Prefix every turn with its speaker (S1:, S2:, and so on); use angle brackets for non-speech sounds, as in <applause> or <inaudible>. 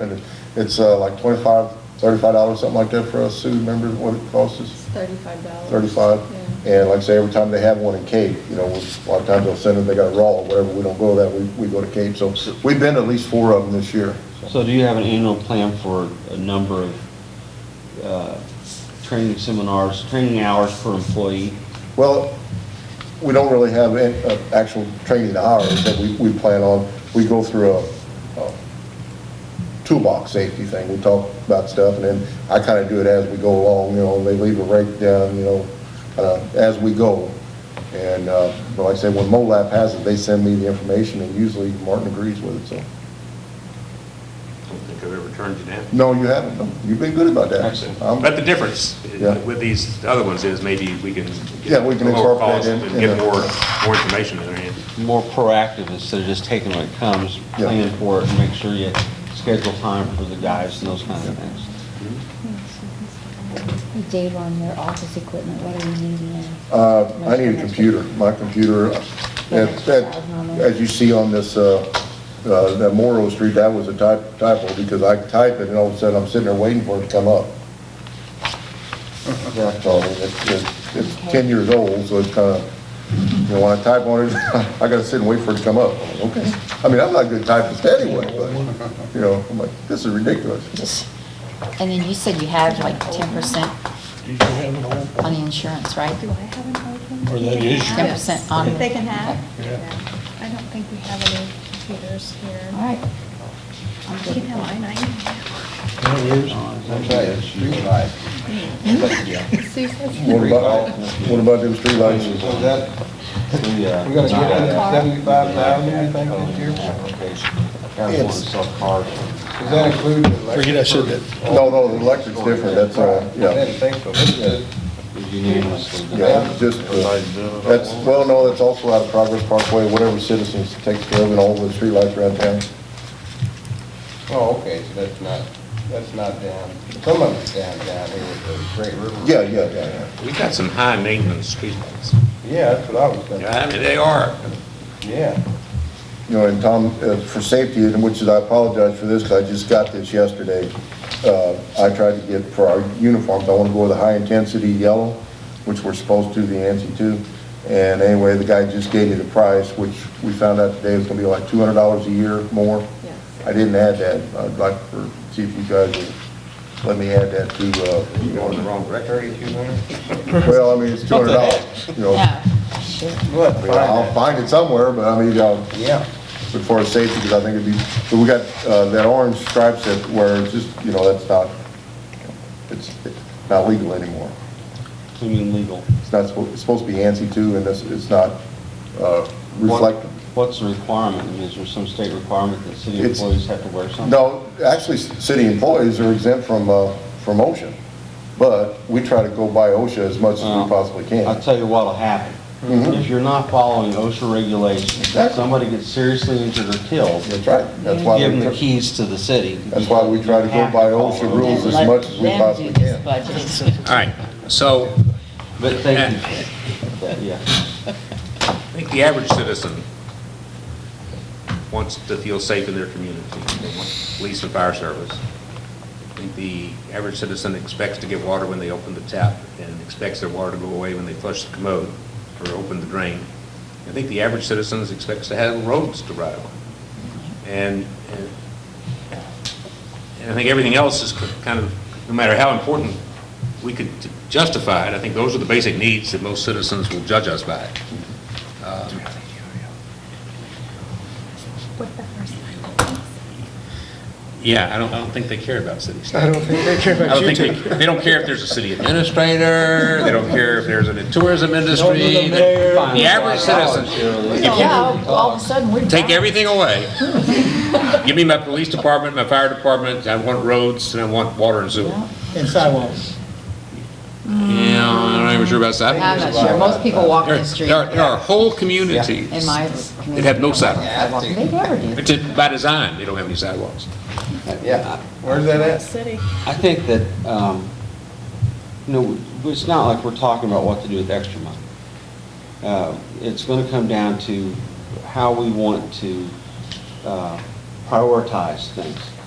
S1: And it's uh, like 25 35 dollars, something like that for us, Sue, remember what it costs us?
S2: Thirty-five dollars.
S1: Thirty-five? And like I say, every time they have one in Cape, you know, a lot of times they'll send them, they got a raw or whatever, we don't go that, we, we go to Cape. So we've been to at least four of them this year.
S3: So do you have an annual plan for a number of uh, training seminars, training hours per employee?
S1: Well, we don't really have an, uh, actual training hours that we, we plan on. We go through a, a toolbox safety thing. We talk about stuff and then I kind of do it as we go along, you know, they leave a breakdown, you know, uh, as we go. And, uh, but like I said, when MOLAP has it, they send me the information and usually Martin agrees with it, so.
S4: I don't think I've ever turned you down.
S1: No, you haven't. No, You've been good about that.
S3: Excellent.
S1: Um,
S4: But the difference
S1: Yeah.
S4: with these other ones is maybe we can. get
S1: Yeah, we can
S4: a lower
S1: incorporate
S4: cost
S1: in-
S4: And
S1: in
S4: get
S1: the-
S4: more, more information in there.
S3: More proactive instead of just taking what comes,
S1: Yeah.
S3: plan for it, and make sure you schedule time for the guys and those kind of things.
S5: Dave, on your office equipment, what are you needing?
S1: Uh, I need a computer, my computer, uh, that, that- as you see on this, uh, uh, that Morrow Street, that was a typ- typo, because I type it, and all of a sudden, I'm sitting there waiting for it to come up. So, it's, it's- it's ten years old, so it's kinda, you know, when I type on it, <laughs> I gotta sit and wait for it to come up, I'm like, okay. I mean, I'm not a good typist anyway, but, you know, I'm like, this is ridiculous.
S5: Just- And then you said you had like ten percent
S6: Did you have an old
S5: on the insurance, right?
S2: Do I have an open?
S6: Or that is
S5: Ten percent on.
S2: They can have.
S6: Yeah.
S2: Yeah. I don't think we have any computers here.
S5: All right. I'm
S2: You can
S5: good with
S2: have
S5: that.
S2: mine, I can.
S6: one
S3: Uh,
S6: years?
S2: See, that's-
S1: What about, what about them streetlights?
S7: <laughs> So that,
S3: uh,
S7: we're gonna get that seventy-five thousand, you think, this year?
S3: Guys want to sell cars.
S7: Does that include the electric?
S6: Forget I said that.
S1: No, no, the electric's different, that's, uh,
S7: I
S1: yeah.
S7: didn't think so. It's just-
S3: Unanimously.
S1: Yeah, it's just, uh, that's, well, no, that's also out of Progress Parkway, whatever citizens takes care of and all the streetlights around town.
S7: Oh, okay, so that's not, that's not down, some of it's down, down here with the Great River.
S1: Yeah, yeah, yeah, yeah.
S4: We've got some high maintenance streetlights.
S7: Yeah, that's what I was thinking,
S4: Yeah, I mean, they are.
S7: yeah.
S1: You know, and Tom, uh, for safety, and which is, I apologize for this, 'cause I just got this yesterday. Uh, I tried to get, for our uniforms, I want to go with a high-intensity yellow, which we're supposed to, the ANSI two. And anyway, the guy just gave me the price, which we found out today was gonna be like two hundred dollars a year more.
S2: Yes.
S1: I didn't add that. I'd like for, see if you guys would let me add that to, uh,
S7: You going the wrong record, you know?
S1: Well, I mean, it's two hundred dollars, you know. I
S5: No, shoot.
S7: What,
S1: mean, I'll find it somewhere, but I mean, uh,
S7: Yeah,
S1: but for safety, because I think it'd be, but we got, uh, that orange stripes that where it's just, you know, that's not, it's not legal anymore.
S3: You mean legal?
S1: It's not, supposed it's supposed to be ANSI two, and it's, it's not, uh,
S3: What-
S1: reflective.
S3: What's the requirement? I mean, Is there some state requirement that city
S1: It's-
S3: employees have to wear something?
S1: No, actually, s- city employees are exempt from, uh, from OSHA, but we try to go by OSHA as much as
S3: Well,
S1: we possibly can.
S3: I'll tell you what'll happen. If you're not following OSHA regulations,
S1: Mm-hmm. Exactly.
S3: somebody gets seriously injured or killed,
S1: That's right, that's why.
S3: give
S1: we
S3: them the
S1: tr-
S3: keys to the city.
S1: That's why we try to
S3: You
S1: go
S3: have
S1: by
S3: to follow
S1: OSHA rules as
S5: Let
S1: much as we
S5: them do
S1: possibly
S5: this
S1: can.
S5: budget.
S4: All right, so
S3: But thank you. That- Yeah.
S4: I think the average citizen wants to feel safe in their community. They want police and fire service. I think the average citizen expects to get water when they open the tap and expects their water to go away when they flush the commode or open the drain. I think the average citizen expects to have roads to ride on. And, and and I think everything else is kind of, no matter how important we could justify it, I think those are the basic needs that most citizens will judge us by. Um,
S2: What the first line?
S4: Yeah, I don't, I don't think they care about city staff.
S6: I don't think they care
S4: I
S6: about
S4: don't
S6: you
S4: think,
S6: two.
S4: they- they don't care if there's a city administrator, they don't care if there's a tourism industry.
S6: the
S4: The
S6: mayor.
S4: average citizen,
S5: Yeah, all of a sudden, we're.
S4: take
S5: back.
S4: everything away. <laughs> Give me my police department, my fire department, I want roads, and I want water and sewer.
S6: And sidewalks.
S4: Yeah, I'm not even sure about
S5: I'm
S4: sidewalks.
S5: not sure, most people walk
S4: There
S5: the
S4: are-
S5: street
S4: There are, there are whole communities
S5: in my.
S4: that have no sidewalks.
S5: sidewalk. They never do.
S4: It's by design, they don't have any sidewalks.
S7: yeah. Where's that at?
S2: City.
S3: I think that, um, you know, it's not like we're talking about what to do with extra money. Uh, It's going to come down to how we want to uh, prioritize things.